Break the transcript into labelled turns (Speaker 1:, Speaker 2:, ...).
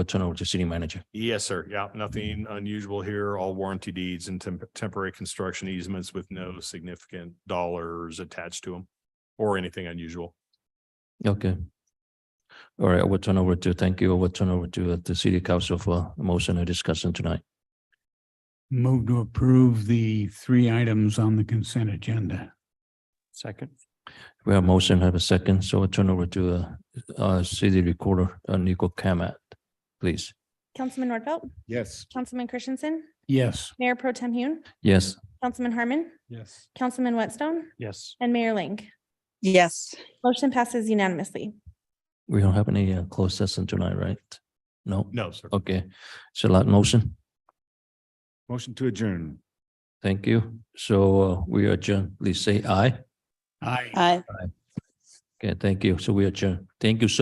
Speaker 1: I'll turn it over to city manager.
Speaker 2: Yes, sir. Yeah, nothing unusual here. All warranty deeds and temp- temporary construction easements with no significant dollars attached to them or anything unusual.
Speaker 1: Okay. All right, I will turn over to, thank you. I will turn over to uh, the city council for a motion and discussion tonight.
Speaker 3: Move to approve the three items on the consent agenda.
Speaker 4: Second.
Speaker 1: We have motion, have a second, so I'll turn over to uh, uh, city recorder, uh, Nico Kamat, please.
Speaker 5: Councilman Nordfeld,
Speaker 4: Yes.
Speaker 5: Councilman Christensen,
Speaker 3: Yes.
Speaker 5: Mayor Pro Tem Hune,
Speaker 1: Yes,
Speaker 5: Councilman Harmon,
Speaker 4: Yes.
Speaker 5: Councilman Whitstone,
Speaker 4: Yes.
Speaker 5: and Mayor Ling.
Speaker 6: yes,
Speaker 5: Motion passes unanimously.
Speaker 1: we don't have any uh, closed session tonight, right? No?
Speaker 2: No, sir.
Speaker 1: Okay, so that motion,
Speaker 4: Motion to adjourn.
Speaker 1: thank you. So uh, we adjourn, please say aye.
Speaker 3: Aye.
Speaker 6: I.
Speaker 1: Okay, thank you. So we adjourn. Thank you so